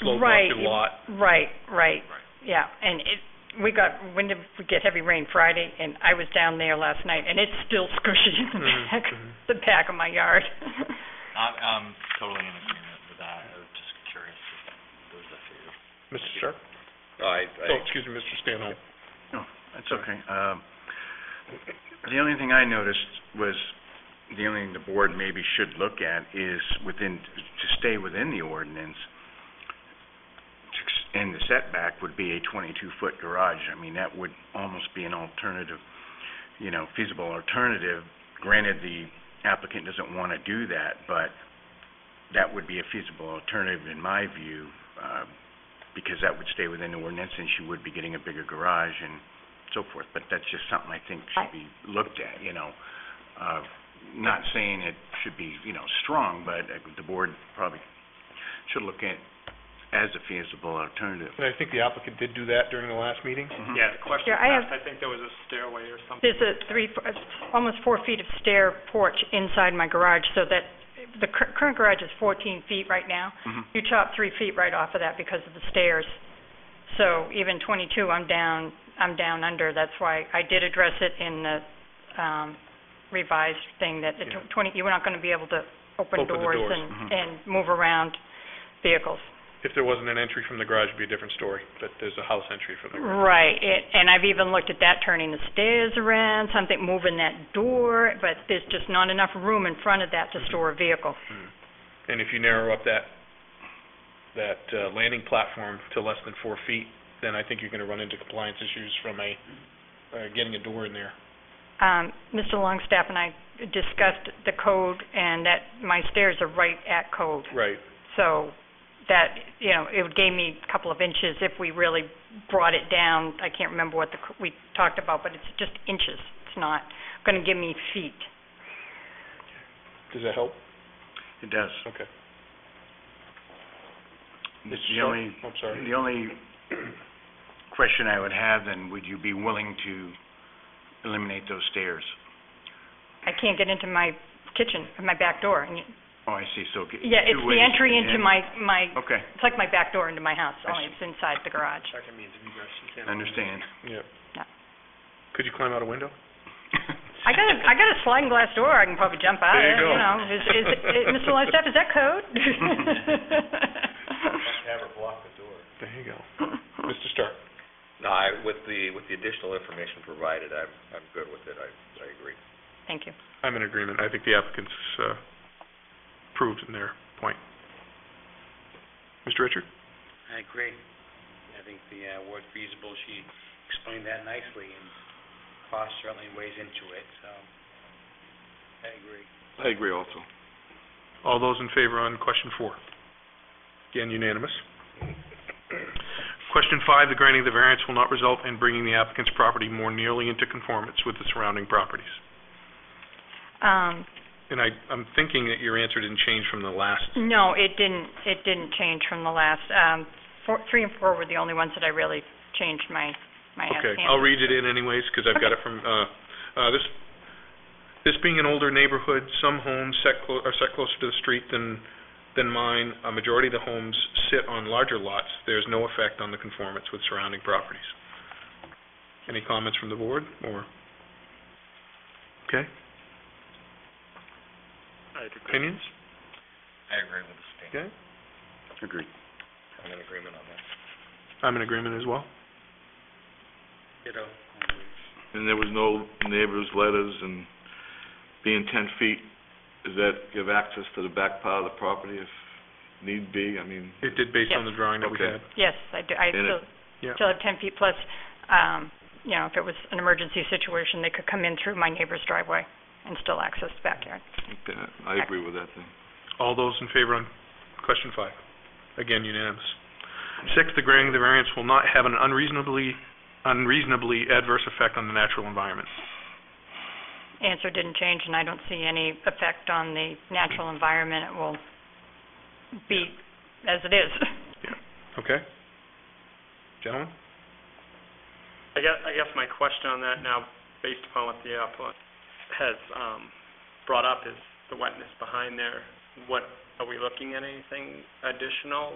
slow Right. market lot. Right, right, yeah, and it, we got, when did we get heavy rain? Friday, and I was down there last night, and it's still squishy in the Mhm, back, mhm. the back of my yard. I'm, I'm totally in agreement with that, I was just curious if those are figures. Mr. Sharp? I, Oh, excuse me, Mr. Stanhope. That's okay. Um, The only thing I noticed was, the only thing the board maybe should look at is within, to stay within the ordinance, to s- and the setback would be a 22-foot garage. I mean, that would almost be an alternative, you know, feasible alternative. Granted, the applicant doesn't want to do that, but that would be a feasible alternative in my view, uh, because that would stay within the ordinance and she would be getting a bigger garage and so forth, but that's just something I think should be looked at, you know. Uh, Not saying it should be, you know, strong, but uh, the board probably should look at as a feasible alternative. And I think the applicant did do that during the last meeting. Yeah, the question Yeah, I passed, I think there was a stairway or something. There's a three, f- almost four feet of stair porch inside my garage, so that, the cur- current garage is 14 feet right now. Mhm. You chop three feet right off of that because of the stairs. So even 22, I'm down, I'm down under. That's why I did address it in the um, revised thing that the Yeah. 20, you're not going to be able to Open open the doors doors. Mm-hmm. and, Mhm. and move around vehicles. If there wasn't an entry from the garage, it'd be a different story, but there's a house entry from the garage. Right, it- and I've even looked at that, turning the stairs around, something moving that door, but there's just not enough room in front of that Mm-hmm. to store a vehicle. And if you narrow up that, that uh, landing platform to less than four feet, then I think you're gonna run into compliance issues from a, uh, getting a door in there. Um, Mr. Longstaff and I discussed the code, and that my stairs are right at code. Right. So that, you know, it gave me a couple of inches if we really brought it down. I can't remember what the, c- we talked about, but it's just inches. It's not going to give me feet. Does that help? It does. Okay. Mr. It's the Sharp? only, I'm sorry. the only question I would have then, would you be willing to eliminate those stairs? I can't get into my kitchen, my back door. and y- Oh, I see, so. get- Yeah, it's two the ways entry in. into my, my, Okay, it's like my back door into my house, I only see. it's inside the garage. Second means of egress, you can't. understand. Yeah. Yeah. Could you climb out a window? I got a, I got a sliding glass door, I can probably jump out There of, you it, go. you know. Is, is, it- Mr. Longstaff, is that code? Have her block the door. There you go. Mr. Stark? No, I, with the, with the additional information provided, I'm, I'm good with it, I, I agree. Thank you. I'm in agreement. I think the applicant's uh, proved in their point. Mr. Richard? I agree. I think the uh, word feasible, she explained that nicely, and cost certainly weighs into it, so I agree. I agree also. All those in favor on question four? Again, unanimous. Question five, the granting of the variance will not result in bringing the applicant's property more nearly into conformance with the surrounding properties. Um, And I, I'm thinking that your answer didn't change from the last. no, it didn't, it didn't change from the last, um, four, three and four were the only ones that I really changed my, my Okay, hand. I'll read it in anyways, because I've got it from, uh, uh, this, this being an older neighborhood, some homes set clo- are set closer to the street than, than mine. A majority of the homes sit on larger lots. There's no effect on the conformance with surrounding properties. Any comments from the board, or? Okay, I'd agree. opinions? I agree with the state, Okay, Agreed. I'm in agreement on that. I'm in agreement as well. Ditto. And there was no neighbors' letters and being ten feet, does that give access to the back part of the property if need be? I mean, It did based on the drawing that we Okay. had. Yes, I do, I And it- still, Yeah. still have ten feet plus, um, you know, if it was an emergency situation, they could come in through my neighbor's driveway and still access the backyard. I agree with that then. All those in favor on question five? Again, unanimous. Six, the granting of the variance will not have an unreasonably, unreasonably adverse effect on the natural environment. Answer didn't change, and I don't see any effect on the natural environment. It will be as it is. Okay? Gentlemen? I guess, I guess my question on that now, based upon what the applicant has um, brought up, is the wetness behind there. What, are we looking at anything additional